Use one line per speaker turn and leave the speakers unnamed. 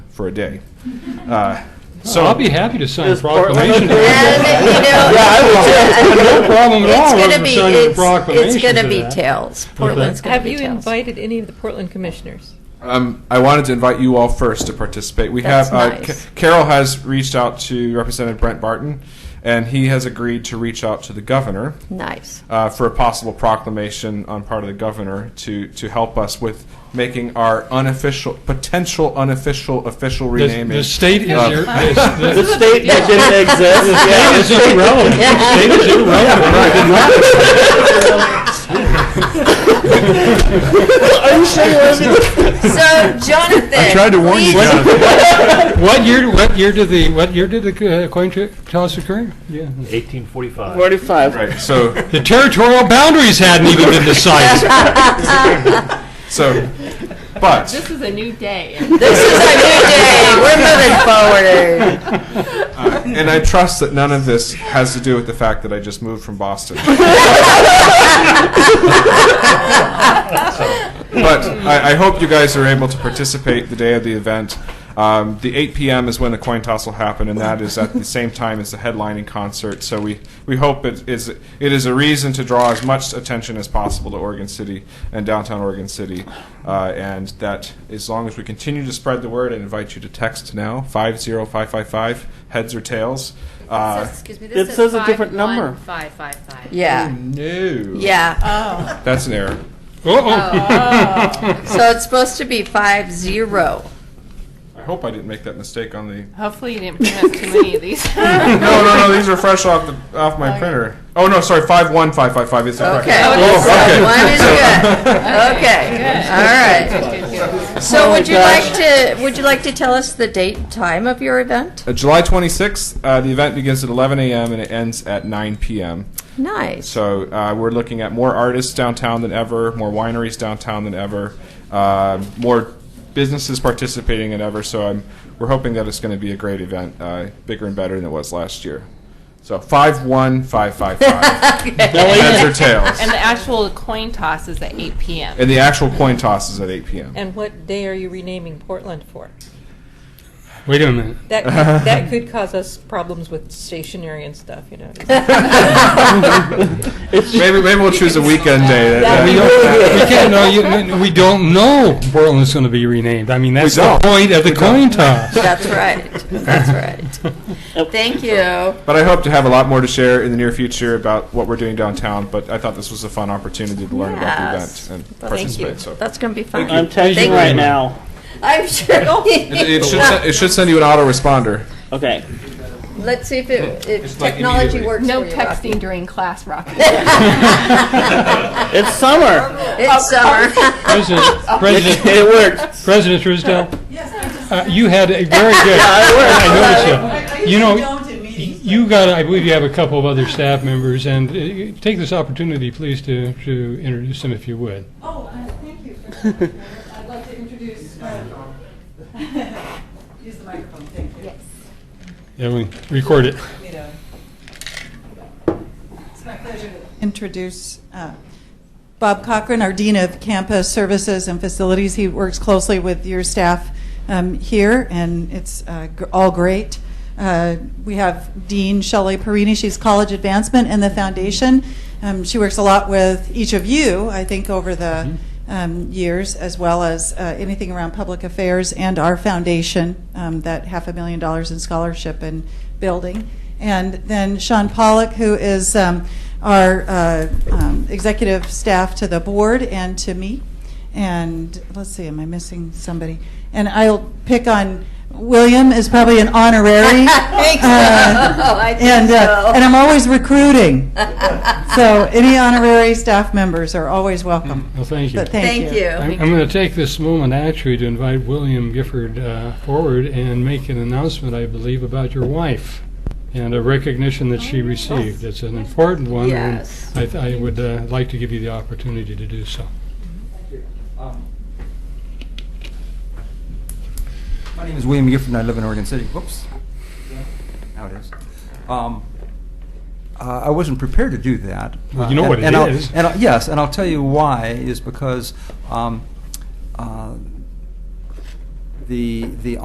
for a day. Uh, So
I'll be happy to sign a proclamation.
Yeah, you know,
No problem at
It's
all. with
gonna be,
signing a
it's,
proclamation
it's gonna
for
be
that.
tails. Portland's gonna
Have
be
you
tails.
invited any of the Portland commissioners?
Um, I wanted to invite you all first to participate. We
That's
have uh,
nice.
Ca- Carol has reached out to Representative Brent Barton, and he has agreed to reach out to the governor
Nice.
uh, for a possible proclamation on part of the governor to to help us with making our unofficial, potential unofficial official
The-
renaming.
The state is,
Uh,
ir- is-
The
the
state that didn't exist.
state is irrelevant. The state is
Are you sure you want me to-
So, Jonathan. I tried to warn you,
irrelevant. What year, what year did the, what year did the uh, coin trick toss occur? Yeah.
1845.
45.
Right. So
The territorial boundaries hadn't even been decided.
so, but
This is a new day.
This is our new day. We're moving forward.
Uh, and I trust that none of this has to do with the fact that I just moved from Boston. but I, I hope you guys are able to participate the day of the event. Um, the 8 p.m. is when the coin toss will happen, and that is at the same time as the headlining concert. So we, we hope it is it is a reason to draw as much attention as possible to Oregon City and downtown Oregon City, uh, and that as long as we continue to spread the word, I invite you to text now five zero five five five heads or tails. Uh,
Excuse me,
It
this
says
is
a different number.
51555.
Yeah,
no,
yeah.
that's an error.
Uh-oh.
So it's supposed to be five zero.
I hope I didn't make that mistake on the
Hopefully you didn't pronounce too many of these.
No, no, no. These are fresh off the off my printer. Oh no, sorry. Five one five five five is the correct.
Okay.
Oh,
So
okay.
One is good.
Good.
Okay, all right.
Good, good, good.
So
Oh,
would you
gosh.
like to, would you like to tell us the date and time of your event?
Uh, July 26th, uh, the event begins at 11 a.m. and it ends at 9 p.m.
Nice.
So uh, we're looking at more artists downtown than ever, more wineries downtown than ever, uh, more businesses participating than ever. So I'm, we're hoping that it's going to be a great event, uh, bigger and better than it was last year. So 51555. Heads or
And
tails.
the actual coin toss is at 8 p.m.
And the actual coin toss is at 8 p.m.
And what day are you renaming Portland for?
Wait a minute.
That, could- that could cause us problems with stationery and stuff, you know.
Maybe, maybe we'll choose a weekend day. that-
We
that-
don't, we can't, no, you, we don't know Portland's gonna be renamed. I mean, that's the
don't.
point of the coin toss.
That's right. That's right. Thank you.
But I hope to have a lot more to share in the near future about what we're doing downtown. But I thought this was a fun opportunity to learn
Yes.
about the event and
Thank you.
participate. So
That's going to be fun.
I'm texting
Thank
right
you.
now.
I'm sure.
it, it should sen- it should send you an autoresponder.
Okay.
Let's see if it, if
It's like
technology
immediately.
works.
No
for you,
texting during class, Rocky.
Rocky.
It's summer.
it's summer.
President,
It,
President,
it works.
President Truesdale? Yes. You had a very good, I noticed you. You know, you got, I believe you have a couple of other staff members, and uh, take this opportunity, please, to, to introduce them if you would.
Oh, uh, thank you. for that. I'd like to introduce, um, use the microphone, thank you.
Yeah, we record it.
You know. It's my pleasure to introduce uh, Bob Cochran, our Dean of Campus Services and Facilities. He works closely with your staff um, here, and it's uh, gr- all great. Uh, We have Dean Shelley Perini, she's College Advancement and the Foundation. Um, She works a lot with each of you, I think, over the um, years, as well as uh, anything around public affairs and our foundation, um, that half a million dollars in scholarship and building. And then Sean Pollock, who is um, our uh, um, executive staff to the board and to me. And let's see, am I missing somebody? And I'll pick on William is probably an honorary.
Thanks. Oh,
Uh,
I think
and,
so.
uh, and I'm always recruiting. so any honorary staff members are always welcome.
Well, thank you.
But thank,
Thank you.
I'm going to take this moment actually to invite William Gifford uh, forward and make an announcement, I believe, about your wife and a recognition that she received. It's an important one, and
Yes.
I th- I would uh, like to give you the opportunity to do so.
Um, My name is William Gifford, and I live in Oregon City. Whoops. Now it is. Um, uh, I wasn't prepared to do that.
Well, you know
Uh,
what it
and I'll-
is.
And I'll- yes, and I'll tell you why is because um, uh, the the